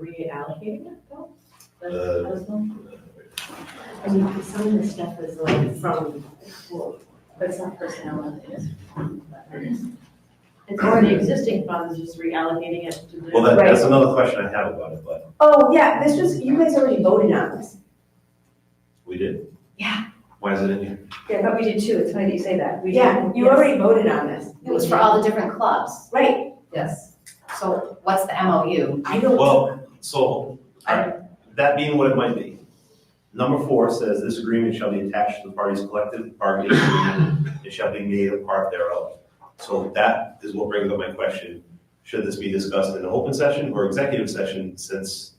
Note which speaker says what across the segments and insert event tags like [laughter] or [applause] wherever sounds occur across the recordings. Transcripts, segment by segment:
Speaker 1: you allocating it though?
Speaker 2: Uh,
Speaker 1: Those ones? I mean, 'cause some of the stuff is like from, well, but it's not personnel and it is. from others. It's already existing funds, just reallocating it to the.
Speaker 2: Well, that, that's another question I have about it, but
Speaker 3: Oh, yeah, this was, you guys already voted on this.
Speaker 2: we did.
Speaker 3: Yeah.
Speaker 2: Why is it in here?
Speaker 4: Yeah, but we did too, it's funny that you say that. We
Speaker 3: Yeah,
Speaker 4: did-
Speaker 3: you
Speaker 4: yes.
Speaker 3: already voted on this.
Speaker 5: It was for all the different clubs.
Speaker 3: Right,
Speaker 5: Yes. So what's the MOU?
Speaker 3: I don't.
Speaker 2: Well, so, alright, that being what it might be. Number four says, this agreement shall be attached to the parties' collective bargaining agreement, and shall be made a part thereof. So that is what brings up my question, should this be discussed in an open session or executive session, since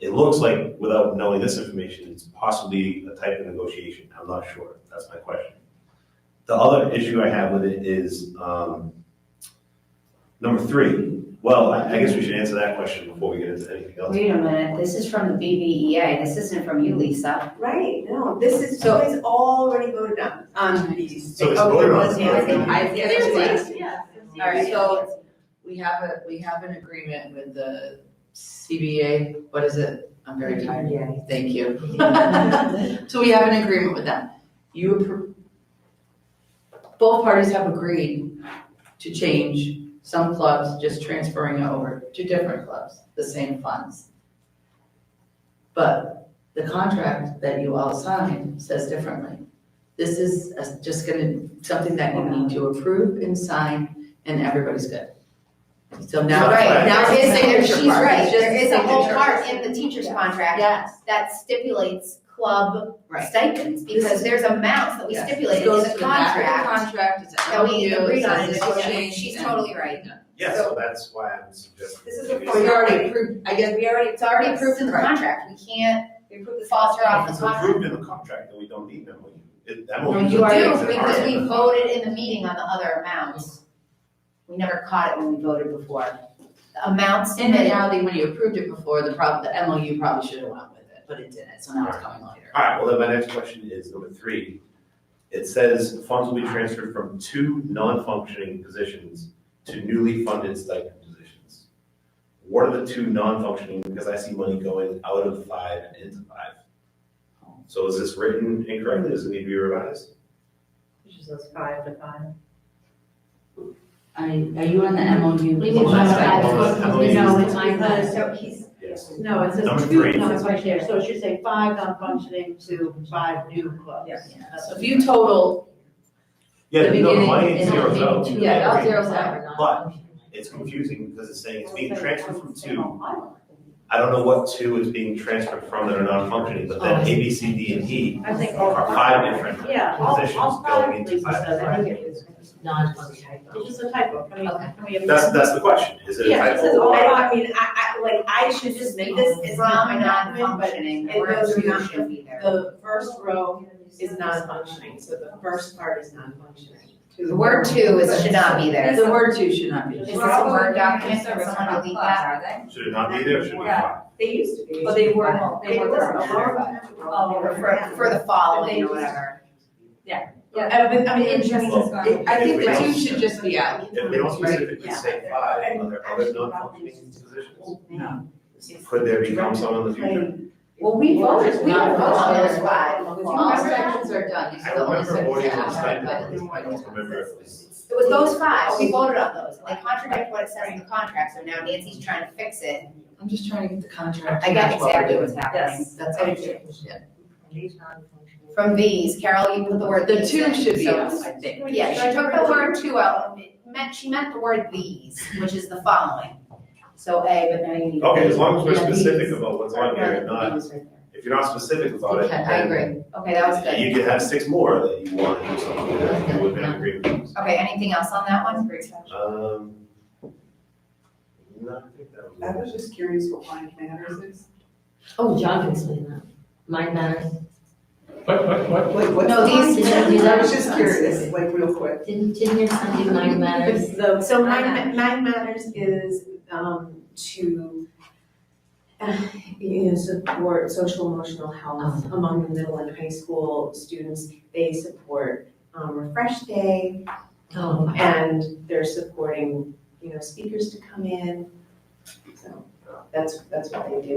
Speaker 2: it looks like, without knowing this information, it's possibly a type of negotiation, I'm not sure, that's my question. The other issue I have with it is, um, number three, well, I I guess we should answer that question before we get into anything else.
Speaker 5: Wait a minute, this is from the BBEA, this isn't from you, Lisa.
Speaker 3: Right, no, this is, you
Speaker 5: So-
Speaker 3: guys already voted on,
Speaker 6: Um,
Speaker 3: on these.
Speaker 2: So it's
Speaker 3: Oh,
Speaker 2: voted
Speaker 3: it
Speaker 2: on.
Speaker 3: was,
Speaker 2: Yeah,
Speaker 3: yeah,
Speaker 2: I
Speaker 4: I think,
Speaker 2: think-
Speaker 4: I
Speaker 1: Yeah,
Speaker 4: think
Speaker 1: it's
Speaker 4: it's-
Speaker 1: like- yeah, it's the-
Speaker 4: All right,
Speaker 1: [laughs]
Speaker 6: so- We have a, we have an agreement with the CBA, what is it? I'm very tired,
Speaker 3: Yeah.
Speaker 6: thank you.
Speaker 5: [laughs]
Speaker 6: So we have an agreement with them. You, appro- both parties have agreed to change some clubs, just transferring it over to different clubs, the same funds. But the contract that you all signed says differently. This is a- just gonna, something that you need to approve and sign, and everybody's good. So now,
Speaker 2: Right.
Speaker 6: now it's the signature part.
Speaker 5: She's right,
Speaker 6: It's just
Speaker 5: there is a whole
Speaker 6: signature.
Speaker 5: part in the teacher's contract
Speaker 6: Yes,
Speaker 5: that stipulates club
Speaker 6: Right.
Speaker 5: stipends, because there's amounts that we
Speaker 6: Yes.
Speaker 5: stipulated
Speaker 6: It
Speaker 5: in
Speaker 6: goes
Speaker 5: the
Speaker 6: to back of the
Speaker 5: contract
Speaker 6: Contract, it's
Speaker 5: that we
Speaker 6: MOU,
Speaker 5: agreed
Speaker 6: it
Speaker 5: on,
Speaker 6: says
Speaker 5: and
Speaker 6: this
Speaker 5: it's-
Speaker 6: change,
Speaker 5: she's
Speaker 6: and-
Speaker 5: totally right.
Speaker 2: Yeah, so that's why I'm suggesting.
Speaker 3: This is a
Speaker 2: maybe-
Speaker 3: point-
Speaker 6: We already approved, I guess,
Speaker 3: We already.
Speaker 5: It's already approved in the
Speaker 6: Right.
Speaker 5: contract, we can't
Speaker 3: We approved this.
Speaker 5: falter off the
Speaker 2: It's
Speaker 5: contract.
Speaker 2: approved in the contract, and we don't need them. We- it- that
Speaker 5: No,
Speaker 2: won't be-
Speaker 5: you
Speaker 2: it's
Speaker 5: do,
Speaker 2: an
Speaker 5: because we
Speaker 2: argument.
Speaker 5: voted in the meeting on the other amounts. We never caught it when we voted before. The amounts
Speaker 6: in
Speaker 5: submitted,
Speaker 6: reality, when you approved it before, the prob, the MOU probably should have went with it, but it didn't, so now it's coming later.
Speaker 2: All right, well, then my next question is number three. It says funds will be transferred from two non-functioning positions to newly funded stipend positions. What are the two non-functioning, because I see money going out of five and into five. So is this written incorrectly, does it need to be revised?
Speaker 1: Which is those five to five.
Speaker 6: Are, are you on the MOU?
Speaker 5: We can
Speaker 2: Well, that's
Speaker 5: modify
Speaker 2: like
Speaker 1: No, it's because,
Speaker 2: one of the MOUs.
Speaker 5: this
Speaker 3: Mine was, so he's,
Speaker 2: Yes.
Speaker 1: no, it
Speaker 2: Number
Speaker 1: says
Speaker 2: three.
Speaker 1: two, no, it's right there, so it should say five non-functioning to five new clubs.
Speaker 3: Yes.
Speaker 6: Yeah, So if you total the
Speaker 2: Yeah,
Speaker 6: beginning.
Speaker 2: no, the money
Speaker 6: and-
Speaker 2: zeros out.
Speaker 6: Yeah, all zeros out.
Speaker 2: But it's confusing because it's saying it's being
Speaker 1: It'll say
Speaker 2: transferred
Speaker 1: one
Speaker 2: from two
Speaker 1: single island.
Speaker 2: I don't know what two is being transferred from that are non-functioning, but then A, B, C, D, and E
Speaker 1: I think all
Speaker 2: are five different
Speaker 1: Yeah, all, all
Speaker 2: positions
Speaker 1: five,
Speaker 2: going
Speaker 1: at
Speaker 2: into
Speaker 1: least,
Speaker 2: five.
Speaker 1: says, I think it is. It's just a typo, can we,
Speaker 5: Okay.
Speaker 1: can we?
Speaker 2: That's, that's the question, is it a
Speaker 1: Yeah, it says
Speaker 2: typo?
Speaker 1: all-
Speaker 3: I don't, I mean, I, I, like, I should just make this, it's not my
Speaker 5: from
Speaker 3: document, but
Speaker 5: non-functioning,
Speaker 3: it
Speaker 5: or
Speaker 3: goes
Speaker 5: two
Speaker 3: not-
Speaker 5: should be there.
Speaker 3: the first row is non-functioning, so the first part is non-functioning.
Speaker 5: The word two is, should not be there.
Speaker 6: The word two should not be.
Speaker 5: Is this a Word document, or someone delete that?
Speaker 2: Should it not be there, or should it be five?
Speaker 3: They used to be.
Speaker 4: But they were, they
Speaker 3: It
Speaker 4: were.
Speaker 3: was
Speaker 4: were-
Speaker 3: a hard-
Speaker 4: Oh,
Speaker 5: For, for the following or whatever.
Speaker 3: I mean, I mean, it's just.
Speaker 2: Well,
Speaker 6: It- I think the two should just be out.
Speaker 2: If they don't specifically
Speaker 3: Yeah.
Speaker 2: say five, are there other non-functioning positions?
Speaker 6: No.
Speaker 2: Could there become some in the future?
Speaker 6: Well, we voted, we
Speaker 5: Not
Speaker 6: voted on
Speaker 5: voted.
Speaker 6: those five. All sections are done, you
Speaker 2: I
Speaker 6: still only
Speaker 2: remember voting on
Speaker 6: sections
Speaker 2: stipend,
Speaker 6: out,
Speaker 2: I don't remember if it was.
Speaker 5: It was those five, we voted on those, they contradict what it says in the contract, so now Nancy's trying to fix it.
Speaker 6: but I'm just trying to get the contract.
Speaker 5: I got
Speaker 6: That's what we're
Speaker 5: exactly
Speaker 6: doing.
Speaker 5: what's happening.
Speaker 6: That's
Speaker 5: I
Speaker 6: all.
Speaker 5: do too. From these, Carol, you put the word
Speaker 6: The
Speaker 5: these
Speaker 6: two
Speaker 5: in,
Speaker 6: should be
Speaker 5: so-
Speaker 6: out, I think.
Speaker 5: Yeah, she took the word two out, it meant, she meant the word these, which is the following. So A, but now you need.
Speaker 2: Okay, as long as we're
Speaker 5: Yeah, these.
Speaker 2: specific about what's on here, and
Speaker 5: Right,
Speaker 2: not,
Speaker 5: these right there.
Speaker 2: if you're not specific about it,
Speaker 6: Okay,
Speaker 5: I agree, okay, that was
Speaker 2: then
Speaker 5: good.
Speaker 2: you could have six more that you want to do something with, that you would have an agreement. with.
Speaker 5: Okay, anything else on that one?
Speaker 2: Um. No, I think that was.
Speaker 7: I was just curious what wine matters is.
Speaker 4: Oh, John can explain that. Mine matters.
Speaker 8: What, what, what?
Speaker 7: Like what's?
Speaker 5: No, these-
Speaker 4: these are- these
Speaker 7: I
Speaker 4: are-
Speaker 7: was just curious, like real quick.
Speaker 4: Didn't, didn't your son do mine
Speaker 6: [laughs]
Speaker 4: matters?
Speaker 3: So, so nine, nine matters is, um, to, [sighs] uh, you know, support social emotional health
Speaker 4: Um.
Speaker 3: among the middle and high school students. They support, um, Refresh Day,
Speaker 4: Oh,
Speaker 3: and they're supporting, you know, speakers to come in, so. That's, that's what they do.